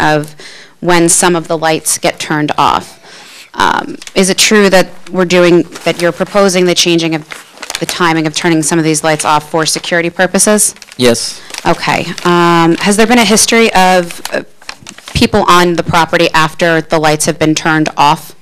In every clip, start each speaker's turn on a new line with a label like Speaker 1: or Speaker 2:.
Speaker 1: of when some of the lights get turned off. Um, Is it true that we're doing, that you're proposing the changing of the timing of turning some of these lights off for security purposes?
Speaker 2: Yes,
Speaker 1: Okay. Um, Has there been a history of uh, people on the property after the lights have been turned off?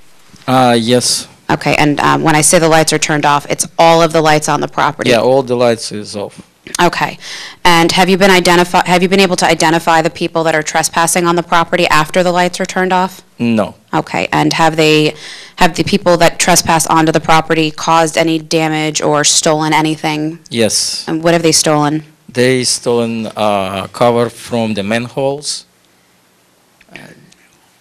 Speaker 2: uh, yes.
Speaker 1: Okay, and um, when I say the lights are turned off, it's all of the lights on the property?
Speaker 2: Yeah, all the lights is off.
Speaker 1: Okay. And have you been identify, have you been able to identify the people that are trespassing on the property after the lights are turned off?
Speaker 2: No,
Speaker 1: Okay, and have they, have the people that trespass onto the property caused any damage or stolen anything?
Speaker 2: yes.
Speaker 1: And what have they stolen?
Speaker 2: They stolen uh, cover from the manholes.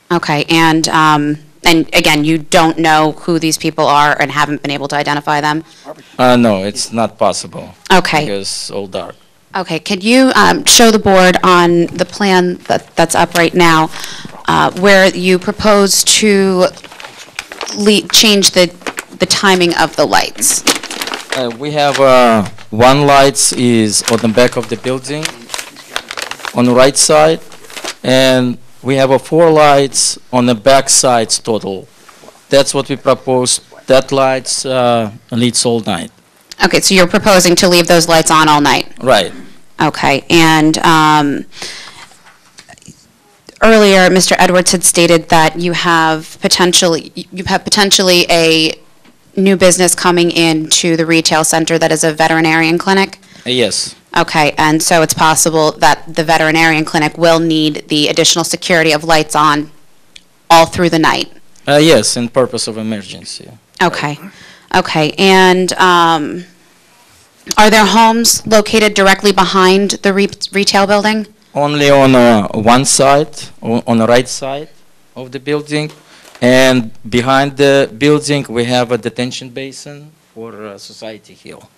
Speaker 1: Okay, and, um, and again, you don't know who these people are and haven't been able to identify them?
Speaker 2: Uh, no, it's not possible.
Speaker 1: Okay.
Speaker 2: Because all dark.
Speaker 1: Okay, could you um, show the board on the plan that- that's up right now, uh, where you propose to le- change the the timing of the lights?
Speaker 2: Uh, we have uh, one lights is on the back of the building, on the right side, and we have a four lights on the back sides total. That's what we propose. That lights uh, leads all night.
Speaker 1: Okay, so you're proposing to leave those lights on all night?
Speaker 2: Right.
Speaker 1: Okay, and um, earlier, Mr. Edwards had stated that you have potentially, you have potentially a new business coming into the retail center that is a veterinarian clinic?
Speaker 2: Uh, yes.
Speaker 1: Okay, and so it's possible that the veterinarian clinic will need the additional security of lights on all through the night?
Speaker 2: Uh, yes, in purpose of emergency.
Speaker 1: Okay, okay, and um, are there homes located directly behind the re- retail building?
Speaker 2: Only on uh, one side, o- on the right side of the building, and behind the building we have a detention basin for uh, Society Hill.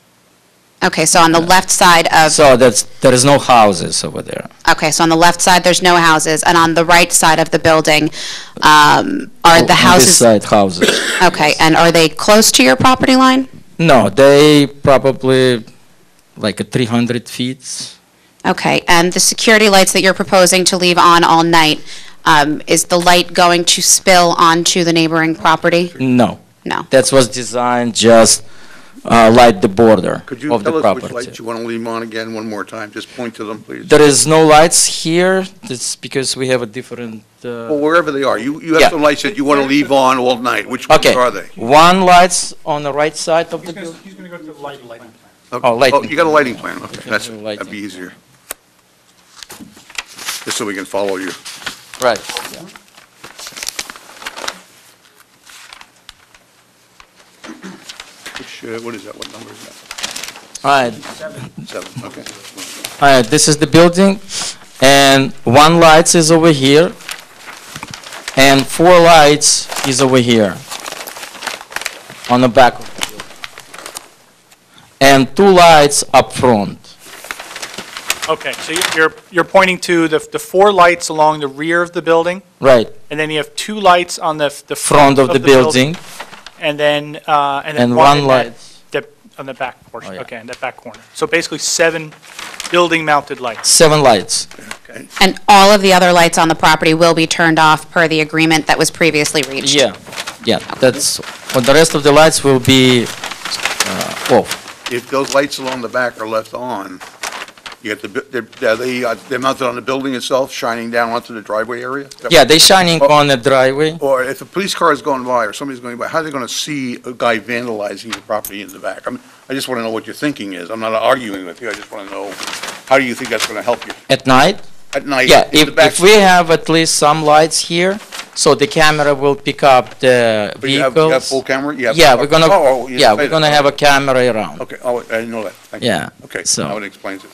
Speaker 1: Okay, so on the left side of,
Speaker 2: So that's there is no houses over there.
Speaker 1: okay, so on the left side, there's no houses, and on the right side of the building um, are the
Speaker 2: Oh, On this
Speaker 1: houses?
Speaker 2: side houses.
Speaker 1: Okay, and are they close to your property line?
Speaker 2: No, they probably like a 300 feet.
Speaker 1: Okay, and the security lights that you're proposing to leave on all night, um, is the light going to spill onto the neighboring property?
Speaker 2: No,
Speaker 1: No.
Speaker 2: that was designed just uh, like the border
Speaker 3: Could you
Speaker 2: of the
Speaker 3: tell us which
Speaker 2: property.
Speaker 3: lights you want to leave on again one more time? Just point to them, please.
Speaker 2: There is no lights here. That's because we have a different. Uh,
Speaker 3: Well, wherever they are, you, you
Speaker 2: Yeah.
Speaker 3: have some lights that you want to leave on all night. Which ones
Speaker 2: Okay.
Speaker 3: are they?
Speaker 2: One lights on the right side of the building.
Speaker 4: He's going to go to the light, lighting plan.
Speaker 3: Okay.
Speaker 2: Oh, lighting.
Speaker 3: You got a lighting plan, okay, that's,
Speaker 2: do
Speaker 3: that'd be
Speaker 2: lighting.
Speaker 3: easier. Just so we can follow you.
Speaker 2: Right.
Speaker 3: Which, uh, what is that, what number is that?
Speaker 2: All right.
Speaker 3: Seven, okay.
Speaker 2: All right. This is the building, and one lights is over here, and four lights is over here. On the back. of the building. And two lights up front.
Speaker 4: Okay, so you- you're, you're pointing to the, the four lights along the rear of the building,
Speaker 2: Right.
Speaker 4: and then you have two lights on the, f- the
Speaker 2: Front of the building
Speaker 4: And then, uh, and then
Speaker 2: and
Speaker 4: one
Speaker 2: one
Speaker 4: in that,
Speaker 2: light.
Speaker 4: that- on the back portion,
Speaker 2: Oh, yeah.
Speaker 4: okay, in that back corner. So basically seven building-mounted lights.
Speaker 2: Seven lights.
Speaker 1: And all of the other lights on the property will be turned off per the agreement that was previously reached?
Speaker 2: Yeah. Yeah. That's. But the rest of the lights will be uh, off.
Speaker 3: If those lights along the back are left on, you have to, they're, are they, uh, they're mounted on the building itself, shining down onto the driveway area? Is that-
Speaker 2: Yeah, they shining
Speaker 3: Oh.
Speaker 2: on the driveway.
Speaker 3: Or if a police car is going by or somebody's going by, how are they going to see a guy vandalizing the property in the back? I mean, I just want to know what your thinking is. I'm not arguing with you. I just want to know, how do you think that's going to help you
Speaker 2: At night?
Speaker 3: at night?
Speaker 2: Yeah,
Speaker 3: in the
Speaker 2: if,
Speaker 3: back-
Speaker 2: if we have at least some lights here, so the camera will pick up the
Speaker 3: But you have- you have
Speaker 2: vehicles.
Speaker 3: full camera? You have-
Speaker 2: Yeah, we're
Speaker 3: Oh, oh,
Speaker 2: gonna,
Speaker 3: you
Speaker 2: yeah,
Speaker 3: say
Speaker 2: we're
Speaker 3: that.
Speaker 2: gonna have a camera around.
Speaker 3: Okay, oh, I didn't know that. Thank you.
Speaker 2: Yeah,
Speaker 3: Okay,
Speaker 2: so-
Speaker 3: now it explains it.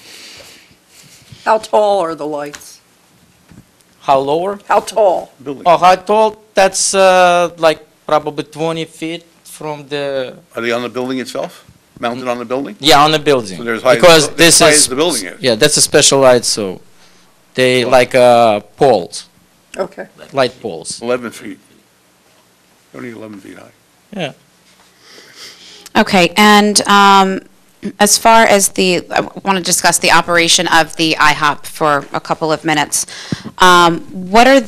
Speaker 5: How tall are the lights?
Speaker 2: How lower?
Speaker 5: How tall?
Speaker 3: Building.
Speaker 2: Oh, how tall? That's, uh, like probably twenty feet from the,
Speaker 3: Are they on the building itself? Mounted on the building?
Speaker 2: yeah, on the building.
Speaker 3: So they're as high as the
Speaker 2: Because
Speaker 3: buil-
Speaker 2: this
Speaker 3: as high
Speaker 2: is-
Speaker 3: as the building is.
Speaker 2: Yeah, that's a special light, so they like, uh, poles,
Speaker 5: Okay.
Speaker 2: light poles.
Speaker 3: 11 feet. Only 11 feet high.
Speaker 2: Yeah.
Speaker 1: Okay, and um, as far as the, I want to discuss the operation of the IHOP for a couple of minutes. Um, What are